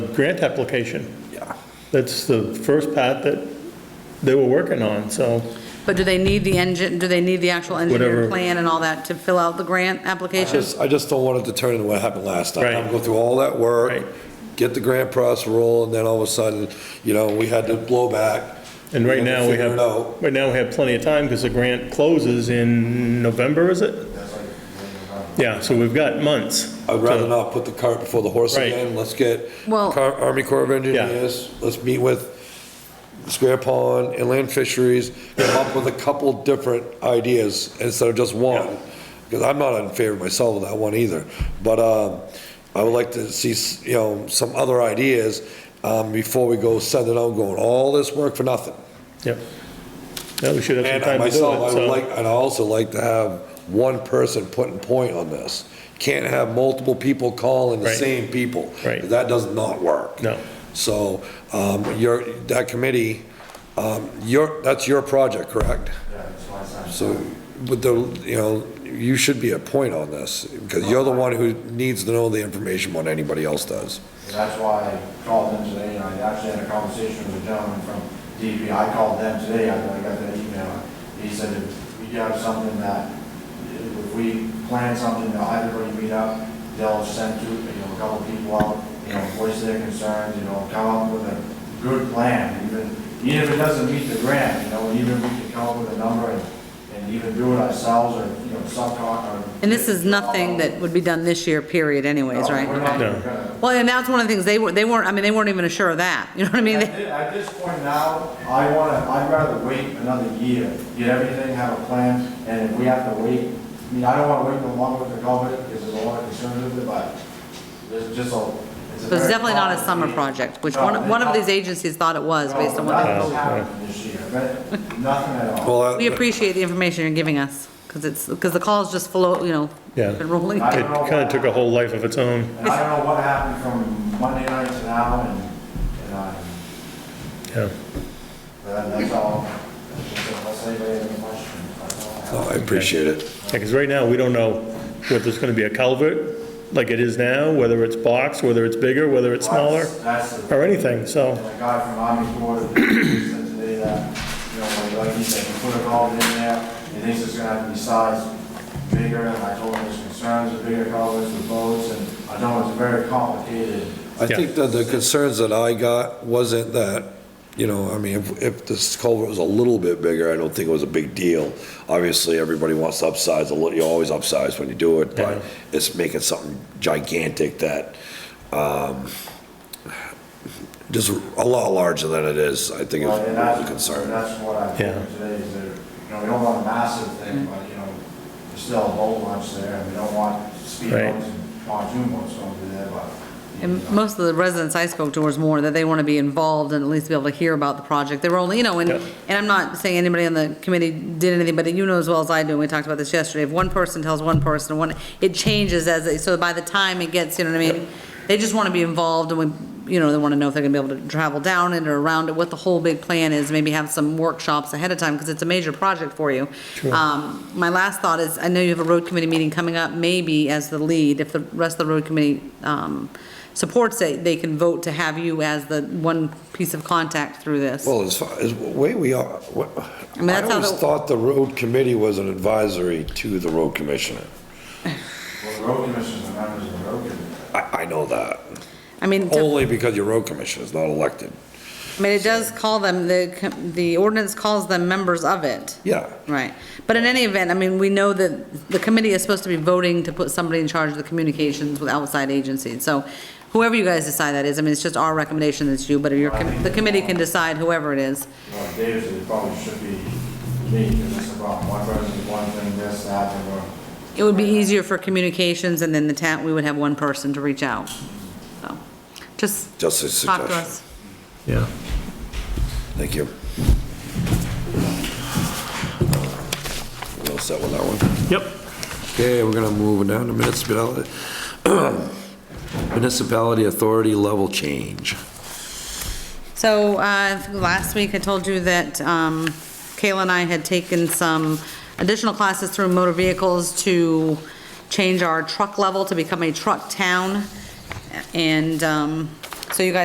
grant application. Yeah. That's the first part that they were working on, so But do they need the engine, do they need the actual engineer Whatever. plan and all that to fill out the grant application? Just, I just don't want it to turn into what happened last time. Right. I'm Go through all that work, Right. get the grant process rolling, then all of a sudden, you know, we had to blow back. And right had to now, we figure have, it out. right now, we have plenty of time because the grant closes in November, is it? Yeah, so we've got months. I'd rather to- not put the cart before the horse Right. again. Let's get Well- Car- Army Corps of Engineers, let's meet with Square Pond, Inland Fisheries, come up with a couple different ideas instead of just one. Because I'm not in favor myself of that one either. But um, I would like to see, s- you know, some other ideas um, before we go send it out going, all this work for nothing. Yep. Yeah, we should have some And time to do it, myself, I would so- like, I'd also like to have one person putting point on this. Can't have multiple people calling the Right. same people. Right. That does not work. No. So, um, your, that committee, um, your, that's your project, correct? So, but the, you know, you should be a point on this, because you're the one who needs to know the information when anybody else does. And That's why I called them today, and I actually had a conversation with a gentleman from DEP. I called them today, I I got that email. He said, if we have something that, if we plan something, that everybody meet up, they'll send two, you know, a couple people out, you know, voice their concerns, you know, come up with a good plan, even, even if it doesn't meet the grant, you know, even if we can come up with a number and, and even do it ourselves, or, you know, subcon, or. And this is nothing that would be done this year, period anyways, No, right? we're not No. gonna- Well, and that's one of the things, they were, they weren't, I mean, they weren't even sure of that, you know what I mean? At They- thi- at this point now, I want to, I'd rather wait another year, get everything, have a plan, and if we have to wait, I mean, I don't want to wait no longer with the government, because there's a lot of concerns with it, but there's just a. it's a But it's very definitely not a summer complicated- project, which No, one, one of it's these agencies thought it was, not- based on no, what they Nothing's told. happened this year, but nothing at all. Well, We that- appreciate the information you're giving us, because it's, because the calls just flow, you know, Yeah. been rolling. I It don't know kind of why. took a whole life of its own, And I don't know what happened from Monday night to now, and, and I, yeah. but that's all. Unless anybody has any questions, that's all I have. oh, I appreciate it. Because right now, we don't know whether it's going to be a culvert like it is now, whether it's box, whether it's bigger, whether it's smaller, That's the- or anything, so. And a guy from Army Corps said today that, you know, like he said, he put a culvert in there, he thinks it's gonna have to be sized bigger, and I told him his concerns are bigger culverts with boats, and I know it's very complicated. I Yeah. think that the concerns that I got wasn't that, you know, I mean, if, if this culvert was a little bit bigger, I don't think it was a big deal. Obviously, everybody wants to upsize a little, you always upsize when you do it, but it's making something gigantic that, um, just a lot larger than it is, I think is And that's- the concern. That's what I told him Yeah. today, is that, you know, we don't want a massive thing, but, you know, there's still a whole bunch there, and we don't want speed Right. boats and pontoon boats over there, but. you And know. most of the residents I spoke to was more that they want to be involved and at least be able to hear about the project. They were only, you know, and, Yep. and I'm not saying anybody on the committee did anything, but you know as well as I do, and we talked about this yesterday, if one person tells one person, one, it changes as, they- so by the time it gets, you know what I mean? They just want to be involved and we, you know, they want to know if they're going to be able to travel down it or around it, what the whole big plan is, maybe have some workshops ahead of time, because it's a major project for you. Um, my last thought is, I know you have a road committee meeting coming up, maybe as the lead, if the rest of the road committee, um, supports it, they can vote to have you as the one piece of contact through this. Well, as far as, way we are, wh- mean, I that's how always the- thought the road committee was an advisory to the road commissioner. Well, the road commissioners are members of the road committee. I, I know that. I mean, to- Only because your road commissioner is not elected. I mean, it does call them, the, co- the ordinance calls them members of it. Yeah. Right. But in any event, I mean, we know that the committee is supposed to be voting to put somebody in charge of the communications with outside agencies. So whoever you guys decide that is, I mean, it's just our recommendation that's you, but your, com- the committee can decide whoever it is. Well, Dave's, it probably should be me, because it's about one person, one thing, this, that, and we're. It would be easier for communications and then the town, we would have one person to reach out. So, just Just a talk to suggestion. us. Yeah. Thank you. We'll set with that one. Yep. Okay, we're gonna move down to municipality, municipality authority level change. So, uh, last week I told you that, um, Kayla and I had taken some additional classes through motor vehicles to change our truck level to become a truck town. And, um, so you guys